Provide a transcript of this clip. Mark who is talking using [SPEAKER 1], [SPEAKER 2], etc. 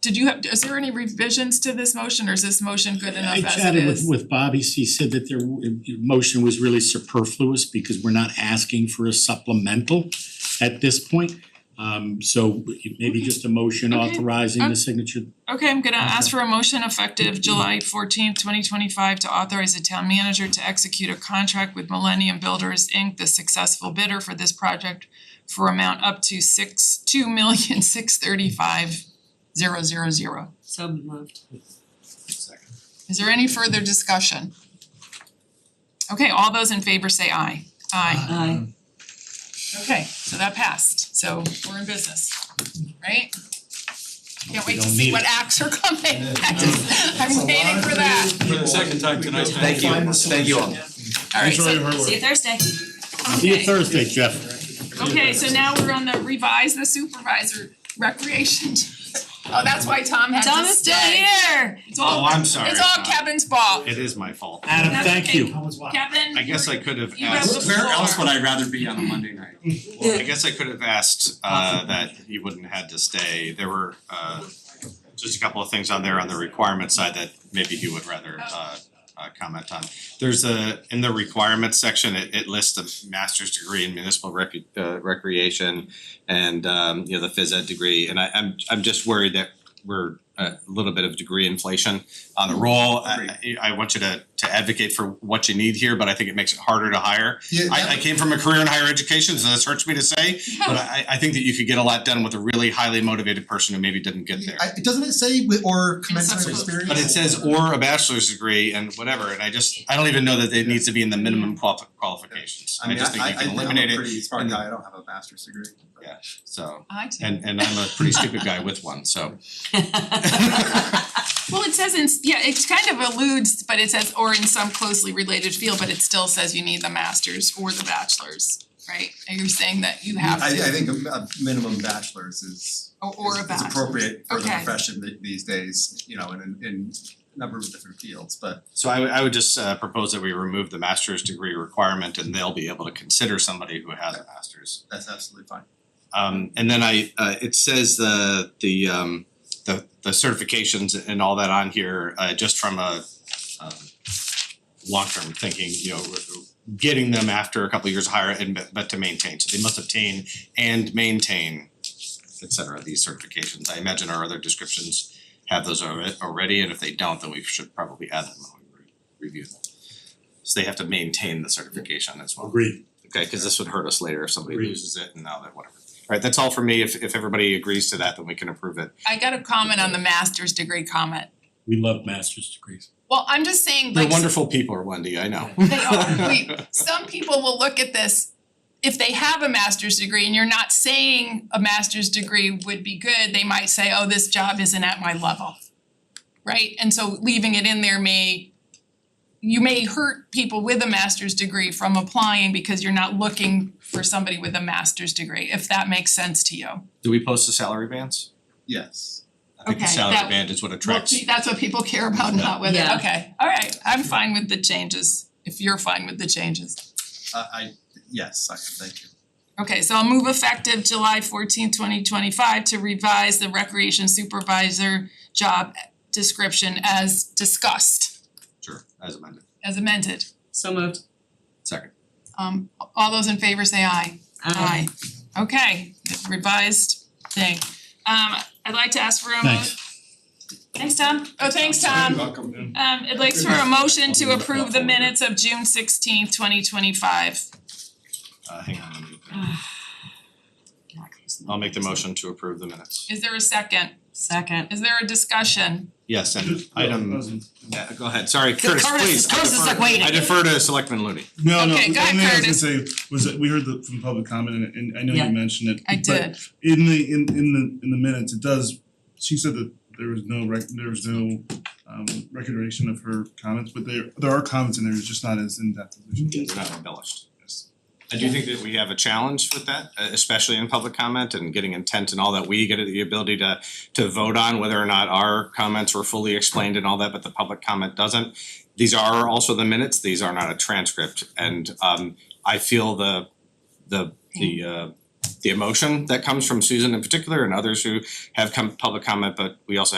[SPEAKER 1] did you have, is there any revisions to this motion or is this motion good enough as
[SPEAKER 2] I
[SPEAKER 1] it is?
[SPEAKER 2] chatted with with Bobby, he said that their uh, motion was really superfluous because we're not asking for a supplemental at this point. Um so maybe just a motion
[SPEAKER 1] Okay. Um,
[SPEAKER 2] authorizing the signature.
[SPEAKER 1] Okay, I'm gonna ask for a motion effective July fourteenth, twenty twenty-five to authorize the town manager to execute a contract with Millennium Builders Inc., the successful bidder for this project for amount up to six, two million, six thirty-five, zero, zero, zero.
[SPEAKER 3] So moved.
[SPEAKER 1] Is there any further discussion? Okay, all those in favor say aye. Aye.
[SPEAKER 3] Aye.
[SPEAKER 1] Okay, so that passed, so we're in business, right? Can't wait to
[SPEAKER 2] don't
[SPEAKER 1] see
[SPEAKER 2] need
[SPEAKER 1] what
[SPEAKER 2] it.
[SPEAKER 1] acts are coming, I just, I'm waiting for that.
[SPEAKER 4] For the second time tonight.
[SPEAKER 5] Thank you, thank you all.
[SPEAKER 1] Alright,
[SPEAKER 2] Thanks for all your
[SPEAKER 1] so,
[SPEAKER 2] hard work.
[SPEAKER 3] See you Thursday.
[SPEAKER 2] See you
[SPEAKER 1] okay,
[SPEAKER 2] Thursday, Jeff.
[SPEAKER 1] okay, so now we're on the revise the supervisor recreation. Oh, that's why Tom had
[SPEAKER 3] Tom
[SPEAKER 1] to
[SPEAKER 3] is still
[SPEAKER 1] stay.
[SPEAKER 3] here.
[SPEAKER 1] It's all,
[SPEAKER 6] Oh, I'm sorry.
[SPEAKER 1] it's all Kevin's fault.
[SPEAKER 6] It is my fault.
[SPEAKER 2] Adam,
[SPEAKER 1] That's
[SPEAKER 2] thank
[SPEAKER 1] okay.
[SPEAKER 2] you.
[SPEAKER 1] Kevin,
[SPEAKER 6] I guess I
[SPEAKER 1] you're-
[SPEAKER 6] could have
[SPEAKER 1] You have
[SPEAKER 6] asked,
[SPEAKER 1] the
[SPEAKER 6] where else
[SPEAKER 1] floor.
[SPEAKER 6] would I rather be on a Monday night? Well, I guess I could have asked uh that he wouldn't have had to stay. There were uh just a couple of things on there on the requirement side that maybe he would rather uh uh comment on. There's a, in the requirements section, it it lists a master's degree in municipal rec- uh recreation and um you know, the phys ed degree, and I I'm I'm just worried that we're uh, a little bit of degree inflation on the roll. I I I want you to to advocate for what you need here, but I think it makes it harder to hire.
[SPEAKER 5] Yeah,
[SPEAKER 6] I I came from a career in higher education, so this hurts me to say, but I I think that you could get a lot done with a really highly motivated person who maybe didn't get there.
[SPEAKER 5] I, doesn't it say with or commensurate
[SPEAKER 1] Insufferable.
[SPEAKER 5] experience?
[SPEAKER 6] But it says or a bachelor's degree and whatever, and I just, I don't even know that it needs to be in the minimum quali- qualifications. I just think you can eliminate
[SPEAKER 5] am a
[SPEAKER 6] it,
[SPEAKER 5] pretty smart
[SPEAKER 6] and-
[SPEAKER 5] guy, I don't have a master's degree. but-
[SPEAKER 6] Yeah. so,
[SPEAKER 1] I too.
[SPEAKER 6] and and I'm a pretty stupid guy with one, so.
[SPEAKER 1] Well, it says in, yeah, it kind of alludes, but it says or in some closely related field, but it still says you need the masters or the bachelors, right? And you're saying that you have
[SPEAKER 5] I I
[SPEAKER 1] to,
[SPEAKER 5] think a a minimum bachelor's is
[SPEAKER 1] or or a
[SPEAKER 5] is is
[SPEAKER 1] bachelor.
[SPEAKER 5] appropriate for the
[SPEAKER 1] Okay.
[SPEAKER 5] profession th- these days, you know, in in in a number of different fields, but
[SPEAKER 6] So I would I would just uh propose that we remove the master's degree requirement and they'll be able to consider somebody who has a master's.
[SPEAKER 5] that's absolutely fine.
[SPEAKER 6] Um and then I uh it says the the um the the certifications and all that on here uh just from a um long-term thinking, you know, getting them after a couple of years higher and but but to maintain, so they must obtain and maintain et cetera, these certifications. I imagine our other descriptions have those alre- already, and if they don't, then we should probably add them when we re- review them. So they have to maintain the certification as well.
[SPEAKER 2] Agreed.
[SPEAKER 6] Okay, cause this would hurt us later if somebody
[SPEAKER 2] Agreed.
[SPEAKER 6] loses it and now that whatever. Alright, that's all for me. If if everybody agrees to that, then we can approve it.
[SPEAKER 1] I got a comment on the master's degree comment.
[SPEAKER 2] We love master's degrees.
[SPEAKER 1] Well, I'm just saying
[SPEAKER 6] They're
[SPEAKER 1] like
[SPEAKER 6] wonderful people, Wendy, I know.
[SPEAKER 1] they are, we, some people will look at this, if they have a master's degree and you're not saying a master's degree would be good, they might say, oh, this job isn't at my level. Right? And so leaving it in there may, you may hurt people with a master's degree from applying because you're not looking for somebody with a master's degree, if that makes sense to you.
[SPEAKER 6] Do we post the salary bands?
[SPEAKER 5] Yes.
[SPEAKER 6] I think the
[SPEAKER 1] Okay,
[SPEAKER 6] salary
[SPEAKER 1] that-
[SPEAKER 6] band is what
[SPEAKER 1] Well,
[SPEAKER 6] attracts.
[SPEAKER 1] see, that's what people care about, not whether,
[SPEAKER 3] Yeah.
[SPEAKER 1] okay, all right, I'm fine with the changes, if you're fine with the changes.
[SPEAKER 5] Uh I yes, I thank you.
[SPEAKER 1] Okay, so I'll move effective July 14, 2025, to revise the recreation supervisor job description as discussed,
[SPEAKER 6] Sure, as amended.
[SPEAKER 1] as amended.
[SPEAKER 3] So moved.
[SPEAKER 6] Second.
[SPEAKER 1] Um all those in favor say aye.
[SPEAKER 3] Aye.
[SPEAKER 1] Okay, revised thing. Um I'd like to ask for a mo-
[SPEAKER 2] Thanks.
[SPEAKER 1] Thanks, Tom. Oh, thanks, Tom.
[SPEAKER 4] welcome.
[SPEAKER 1] Um I'd like for a motion to approve the minutes of June sixteenth, twenty twenty five.
[SPEAKER 6] Uh hang on, let me-
[SPEAKER 3] Not close enough.
[SPEAKER 6] I'll make the motion to approve the minutes.
[SPEAKER 1] Is there a second?
[SPEAKER 3] Second.
[SPEAKER 1] Is there a discussion?
[SPEAKER 6] Yes, and item, yeah, go ahead, sorry, Curtis,
[SPEAKER 3] Curtis-
[SPEAKER 6] please, I
[SPEAKER 3] Curtis is,
[SPEAKER 6] defer-
[SPEAKER 3] like, waiting.
[SPEAKER 6] I defer to Selectman Looney.
[SPEAKER 7] No, no,
[SPEAKER 1] Okay,
[SPEAKER 7] the
[SPEAKER 1] go ahead,
[SPEAKER 7] only thing I was gonna
[SPEAKER 1] Curtis.
[SPEAKER 7] say was that we heard the from public comment and and I know
[SPEAKER 3] Yeah.
[SPEAKER 7] you mentioned it,
[SPEAKER 1] I
[SPEAKER 7] but
[SPEAKER 1] did.
[SPEAKER 7] in the in in the in the minutes, it does, she said that there was no rec- there was no um recordation of her comments, but there there are comments in there, it's just not as in depth as we should.
[SPEAKER 6] They're not embellished. I do think that we have a challenge with that, uh, especially in public comment and getting intent and all that. We get the ability to to vote on whether or not our comments were fully explained and all that, but the public comment doesn't. These are also the minutes, these are not a transcript, and um I feel the the the uh the emotion that comes from Susan in particular and others who have come public comment, but we also